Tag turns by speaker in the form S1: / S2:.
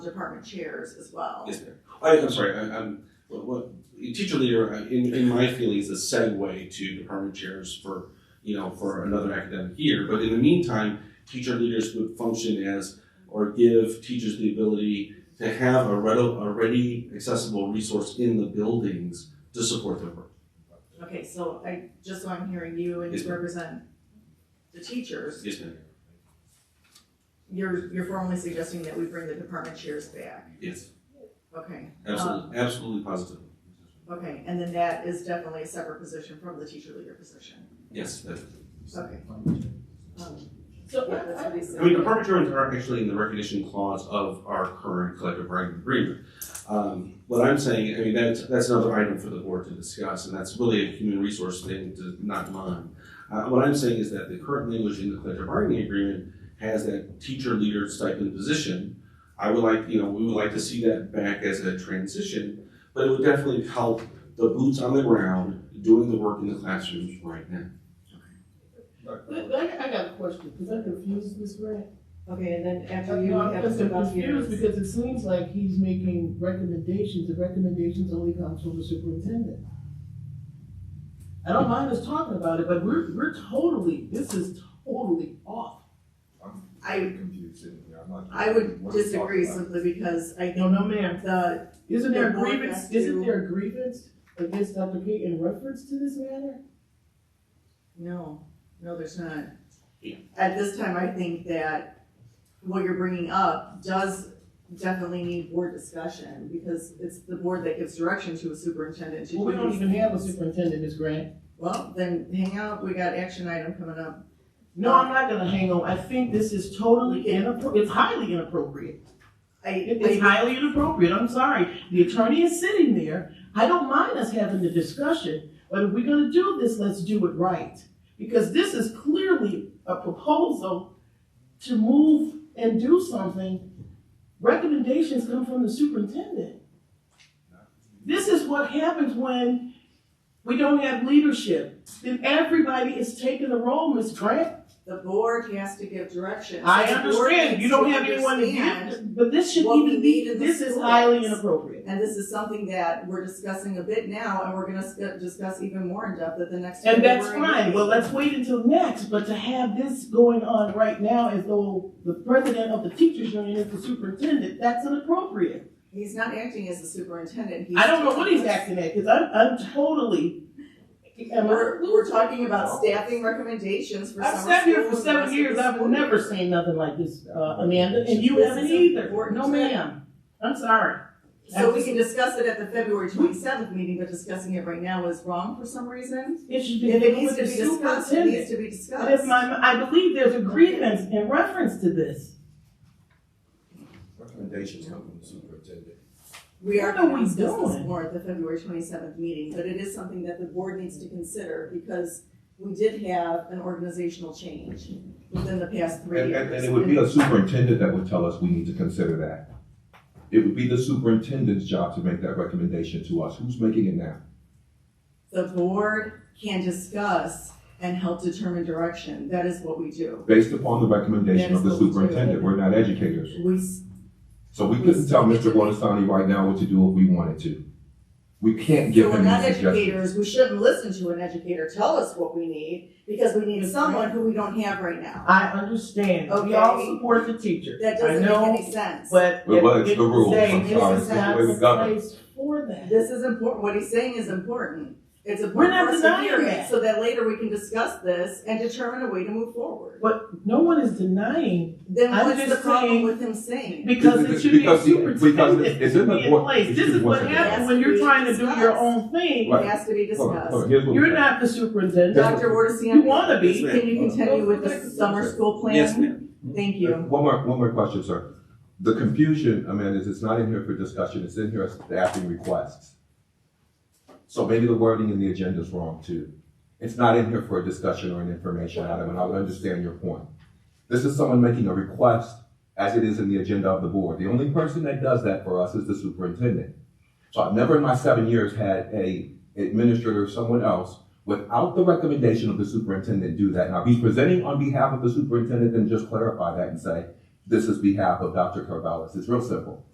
S1: department chairs as well.
S2: Yes, ma'am. I, I'm sorry, I, I'm, what, what, teacher leader, I- in, in my feelings, a segue to department chairs for, you know, for another academic year, but in the meantime, teacher leaders would function as, or give teachers the ability to have a ready, a ready accessible resource in the buildings to support their work.
S1: Okay, so I, just so I'm hearing you and
S2: Yes,
S1: you
S2: ma'am.
S1: represent the teachers,
S2: Yes, ma'am,
S1: you're, you're formally suggesting that we bring the department chairs back.
S2: yes,
S1: Okay,
S2: absolutely, absolutely positively,
S1: okay, and then that is definitely a separate position from the teacher leader position.
S2: yes, that-
S1: Okay. Um,
S3: So
S1: Yeah, that's what he
S2: I mean, department chairs are actually in the recognition clause of our current collective bargaining agreement. Um, what I'm saying, I mean, that's, that's another item for the board to discuss, and that's really a human resource thing to not mine. Uh, what I'm saying is that the current language in the collective bargaining agreement has that teacher leader stipend position. I would like, you know, we would like to see that back as a transition, but it would definitely help the boots on the ground doing the work in the classrooms right now.
S3: I, I- I got a question, because I'm confused, Ms. Grant.
S1: Okay, and then after you
S3: No, I'm
S1: have
S3: just
S1: the
S3: confused
S1: volunteers.
S3: because it seems like he's making recommendations, the recommendations only comes from the superintendent. I don't mind us talking about it, but we're, we're totally, this is totally off.
S1: I,
S4: confused sitting here. I'm not.
S1: I would disagree simply because I
S3: No,
S1: think
S3: no, ma'am.
S1: the,
S3: Isn't there a
S1: The board
S3: grievance,
S1: has to-
S3: isn't there a grievance against Dr. Kate in reference to this matter?
S1: no, no, there's not. At this time, I think that what you're bringing up does definitely need board discussion because it's the board that gives direction to a superintendent to
S3: Well, we
S1: do
S3: don't
S1: these
S3: even have a
S1: things.
S3: superintendent, Ms. Grant.
S1: Well, then hang out, we got action item coming up.
S3: No, I'm not gonna hang on. I think this is totally inappropriate. It's highly inappropriate.
S1: I,
S3: It is
S1: I,
S3: highly inappropriate. I'm sorry. The attorney is sitting there. I don't mind us having the discussion, but if we're gonna do this, let's do it right. Because this is clearly a proposal to move and do something. Recommendations come from the superintendent. This is what happens when we don't have leadership. Then everybody is taking a role, Ms. Grant.
S1: the board has to give direction.
S3: I
S1: So the board
S3: understand, you
S1: needs
S3: don't
S1: to
S3: have anyone to
S1: understand,
S3: give, but this should
S1: what we
S3: even
S1: need
S3: be,
S1: in the
S3: this is
S1: schools.
S3: highly inappropriate.
S1: And this is something that we're discussing a bit now and we're gonna sc- discuss even more in depth at the next.
S3: And that's
S1: February
S3: fine,
S1: meeting.
S3: well, let's wait until next, but to have this going on right now as though the president of the teachers union is the superintendent, that's inappropriate.
S1: He's not acting as the superintendent. He's
S3: I don't know what he's acting at, because I'm, I'm totally. am I-
S1: We're, we're talking about staffing recommendations for summer
S3: I've
S1: schools.
S3: sat here for
S1: and the rest
S3: seven
S1: of
S3: years,
S1: the
S3: I've
S1: school
S3: never
S1: year.
S3: seen nothing like this, uh, Amanda, and you
S1: This
S3: haven't
S1: is
S3: either,
S1: important
S3: no
S1: to-
S3: ma'am, I'm sorry.
S1: So we can discuss it at the February twenty-seventh meeting, but discussing it right now is wrong for some reason.
S3: It should be
S1: If it needs
S3: with
S1: to
S3: the
S1: be discussed, it
S3: superintendent.
S1: needs to be discussed.
S3: But if my, I believe there's a grievance in reference to this.
S4: Recommendations come from the superintendent.
S1: We are
S3: What are
S1: going to
S3: we
S1: discuss this
S3: doing?
S1: more at the February twenty-seventh meeting, but it is something that the board needs to consider because we did have an organizational change within the past three
S4: And,
S1: years.
S4: and, and it would be a superintendent that would tell us we need to consider that. It would be the superintendent's job to make that recommendation to us. Who's making it now?
S1: The board can discuss and help determine direction. That is what we do.
S4: Based upon the recommendation of the
S1: Yes, we do.
S4: superintendent, we're not educators.
S1: We, s-
S4: So we couldn't tell Mr. Bonasani right now what to do if we wanted to. We can't
S1: so
S4: give
S1: we're
S4: him
S1: not
S4: any suggestions.
S1: educators. We shouldn't listen to an educator tell us what we need because we need someone who we don't have right now.
S3: I understand, we all support the teacher.
S1: That
S3: I
S1: doesn't make
S3: know,
S1: any sense.
S3: But.
S4: But what is the rules?
S3: Say,
S4: I'm
S3: this
S1: sorry, this
S3: is
S1: is the
S3: not
S1: way
S4: we govern.
S3: the place for that.
S1: This is important, what he's saying is important. It's
S3: We're
S1: important
S3: not
S1: for us to hear
S3: denying
S1: it,
S3: that.
S1: so that later we can discuss this and determine a way to move forward.
S3: No one is denying,
S1: Then
S3: I'm
S1: what's the
S3: just
S1: problem
S3: saying-
S1: with him saying?
S3: because it should be a
S4: Because- because-
S3: superintendent
S4: it's in
S3: to
S4: the
S3: be in
S4: board-
S3: place. This
S4: excuse
S3: is
S4: me,
S3: what
S4: one
S3: happens
S1: second.
S3: when you're trying to do your
S1: Yes,
S3: own thing.
S1: It has to be
S4: Hold on, hold
S1: discussed.
S4: on, here's what we're
S3: You're
S4: saying.
S3: not the superintendent,
S1: Dr.
S3: you
S1: Wardisian,
S3: wanna
S2: Yes,
S3: be.
S2: ma'am.
S1: can you continue with the summer school plan?
S2: Yes, ma'am.
S1: Thank you.
S4: Uh, One more, one more question, sir. The confusion, I mean, is it's not in here for discussion, it's in here as staffing requests. So maybe the wording in the agenda is wrong too. It's not in here for a discussion or an information item, and I would understand your point. This is someone making a request as it is in the agenda of the board. The only person that does that for us is the superintendent. So I've never in my seven years had a administrator or someone else without the recommendation of the superintendent do that. Now, if he's presenting on behalf of the superintendent, then just clarify that and say, this is behalf of Dr. Carvelis. It's real simple.